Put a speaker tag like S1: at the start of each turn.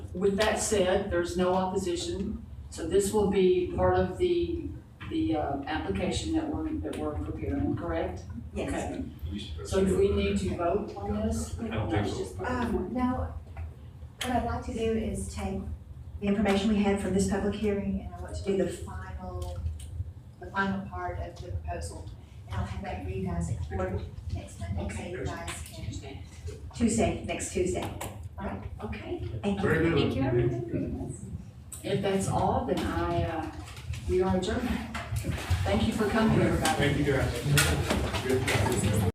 S1: With that said, there's no opposition, so this will be part of the, the uh, application that we're, that we're preparing, correct?
S2: Yes.
S1: Okay. So do we need to vote on this?
S3: I don't think so.
S1: Just put it
S2: Um,
S1: on.
S2: no, what I'd like to do is take the information we had from this public hearing and I want to do the final, the final part of the proposal. And I'll have that for you guys at court next Monday, so you guys can, Tuesday, next Tuesday.
S1: Okay,
S2: Thank you.
S3: Very good.
S4: Thank you, everyone.
S1: if that's all, then I, uh, we are adjourned. Thank you for coming, everybody.
S3: Thank you guys. Good job.